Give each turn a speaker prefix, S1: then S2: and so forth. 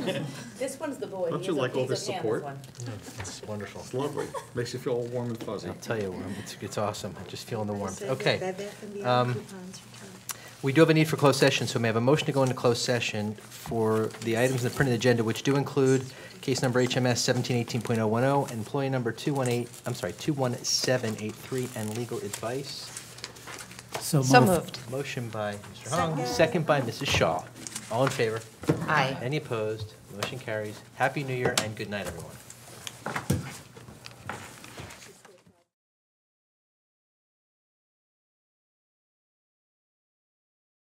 S1: This one's the boy.
S2: Don't
S1: He
S2: you
S1: is a-
S2: like all
S1: he's a
S2: this
S1: fan of
S2: support?
S1: one.
S3: It's wonderful.
S2: It's lovely. Makes you feel all warm and fuzzy.
S3: I'll tell you, um, it's, it's awesome. I'm just feeling the warmth.
S4: Says that
S3: Okay.
S4: Bed Bath and Beyond
S3: Um,
S4: coupons return.
S3: We do have a need for closed session, so may I have a motion to go into closed session for the items in the printed agenda, which do include case number HMS 1718.010, employee number 218, I'm sorry, 21783, and legal advice.
S5: So moved.
S3: Motion by Mr. Hong,
S4: Second.
S3: second by Mrs. Shaw. All in favor?
S5: Aye.
S3: Any opposed? Motion carries. Happy New Year and good night, everyone.